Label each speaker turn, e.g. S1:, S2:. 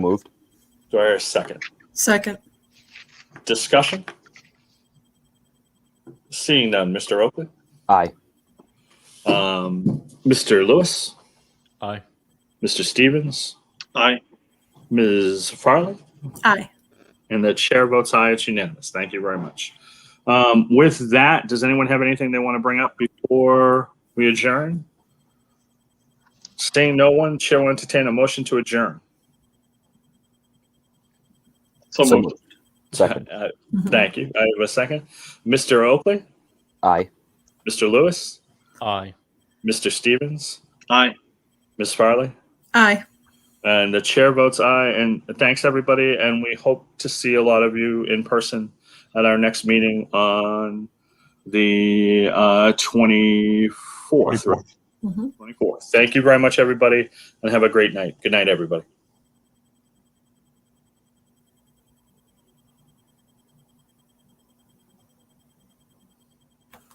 S1: Moved.
S2: Do I hear a second?
S3: Second.
S2: Discussion? Seeing none, Mr. Oakley?
S1: Aye.
S2: Um, Mr. Lewis?
S4: Aye.
S2: Mr. Stevens?
S5: Aye.
S2: Ms. Farley?
S3: Aye.
S2: And the chair votes aye, it's unanimous. Thank you very much. Um, with that, does anyone have anything they want to bring up before we adjourn? Seeing no one, chair will entertain a motion to adjourn.
S5: So
S1: So
S5: moved.
S1: moved. Second.
S2: Uh, Thank you. I have a second. Mr. Oakley,
S1: Aye.
S2: Mr. Lewis,
S4: Aye.
S2: Mr. Stevens,
S5: Aye.
S2: Ms. Farley,
S3: Aye.
S2: and the chair votes aye. And thanks, everybody. And we hope to see a lot of you in person at our next meeting on the uh, 24th. 24th.
S3: Mhm.
S2: Thank you very much, everybody, and have a great night. Good night, everybody.